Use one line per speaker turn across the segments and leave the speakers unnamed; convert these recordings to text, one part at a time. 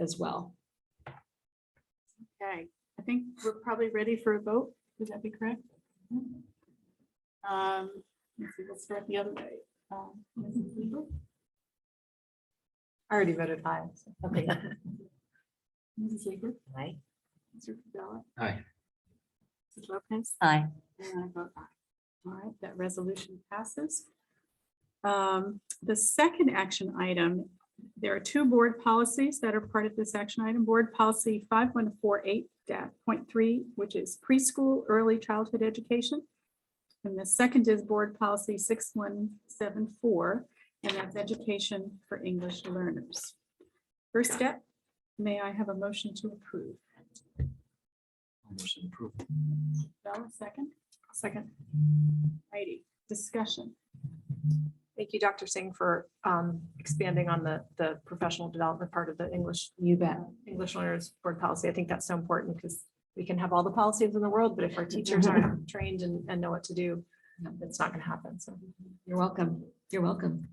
as well.
Okay, I think we're probably ready for a vote. Would that be correct? Um, let's see, let's start the other way. Um, Mrs. Weaver?
I already voted aye. so.
Okay. Mrs. Weaver?
Aye.
Mr. Cavella?
Aye.
Mrs. Lopez?
Aye.
And I vote aye. All right, that resolution passes. Um, The second action item, there are two board policies that are part of this action item. Board Policy 5148.3, which is preschool, early childhood education. And the second is Board Policy 6174, and that's education for English learners. First step, may I have a motion to approve?
Motion approved.
Bell, second? Second. Righty, discussion.
Thank you, Dr. Singh, for um, expanding on the, the professional development part of the English. You bet. English learners board policy. I think that's so important because we can have all the policies in the world, but if our teachers aren't trained and, and know what to do, it's not going to happen. So
You're welcome. You're welcome.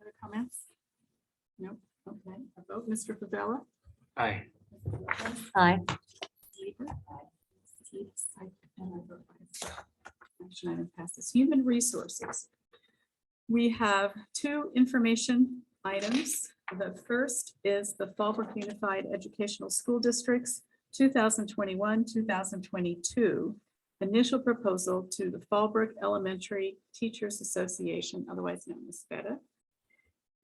Other comments? Nope, okay. A vote, Mr. Favela?
Aye.
Aye.
Action item passes. Human resources. We have two information items. The first is the Fallbrook Unified Educational School Districts 2021, 2022 initial proposal to the Fallbrook Elementary Teachers Association, otherwise known as FETA.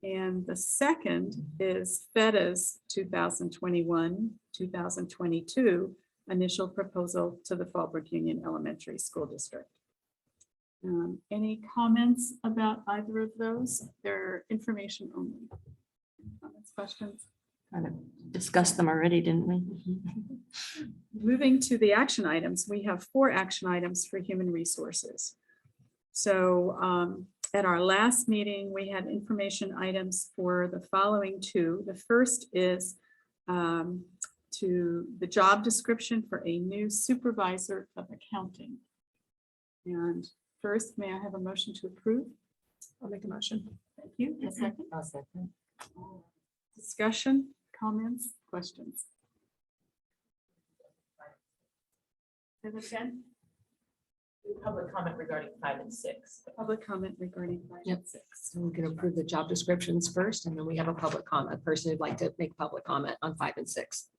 And the second is FETA's 2021, 2022 initial proposal to the Fallbrook Union Elementary School District. Um, Any comments about either of those? They're information only. Comments, questions?
Kind of Discussed them already, didn't we?
Moving to the action items, we have four action items for human resources. So um, at our last meeting, we had information items for the following two. The first is um, to the job description for a new supervisor of accounting. And first, may I have a motion to approve?
I'll make a motion.
Thank you. A second.
I'll second.
Discussion, comments, questions? Say that again?
Public comment regarding five and six.
Public comment regarding
Yep.
item six.
So we can approve the job descriptions first, and then we have a public comment, a person who'd like to make public comment on five and six.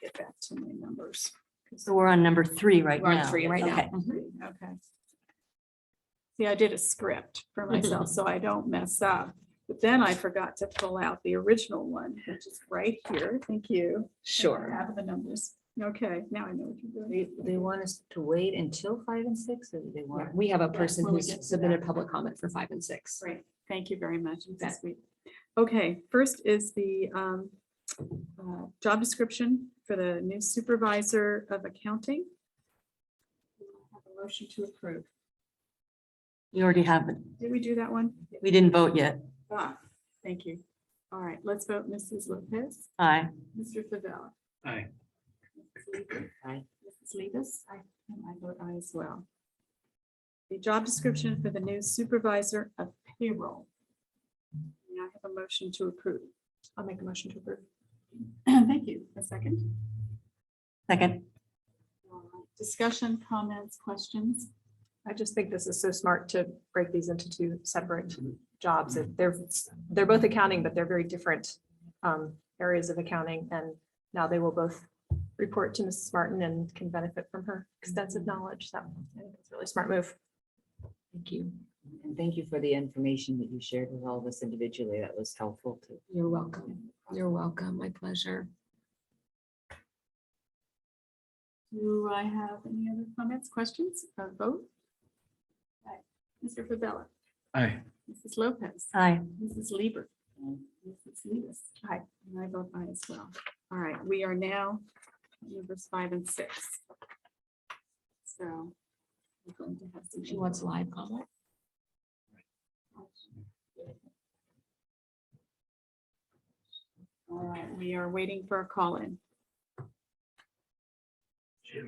Get back to my numbers.
So we're on number three right
We're on
now.
three right now.
Okay.
Okay. See, I did a script for myself, so I don't mess up. But then I forgot to pull out the original one, which is right here. Thank you. I Have the numbers. Okay, now I know what you're doing.
They, they want us to wait until five and six or do they
Yeah,
want?
We have a
Yeah,
person
when we
who's
get to
submitted public comment for five and six.
Great, thank you very much. That's sweet. Okay, first is the um, uh, job description for the new supervisor of accounting. Have a Motion to approve.
We already have, it.
Did we do that one?
we didn't vote yet.
Ah, Thank you. All right, let's vote Mrs. Lopez,
Aye.
Mr. Favela.
Aye.
Aye.
Mrs. Levis. Aye. And I vote aye as well. The job description for the new supervisor of payroll. May I have a motion to approve.
I'll make a motion to approve.
Thank you. A second.
Second.
All right. Discussion, comments, questions?
I just think this is so smart to break these into two separate jobs. It- They're, they're both accounting, but they're very different um, areas of accounting. And now they will both report to Mrs. Martin and can benefit from her extensive knowledge. So I think it's a really smart move.
Thank you. And thank you for the information that you shared with all of us individually. That was helpful too.
You're welcome. You're welcome. My pleasure.
Do I have any other comments, questions, or vote? Okay. Mr. Favela,
Aye.
Mrs. Lopez,
Aye.
Mrs. Lieber. Mrs. Levis. Hi, and I vote aye as well. All right, we are now at numbers five and six. So. we're going to have some-
She wants live comment.
All right, we are waiting for a call in.
I'm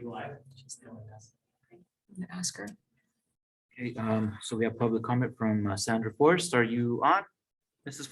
gonna Ask her.
Okay, um, so we have public comment from uh, Sandra Forrest. Are you on? Mrs. Forrest?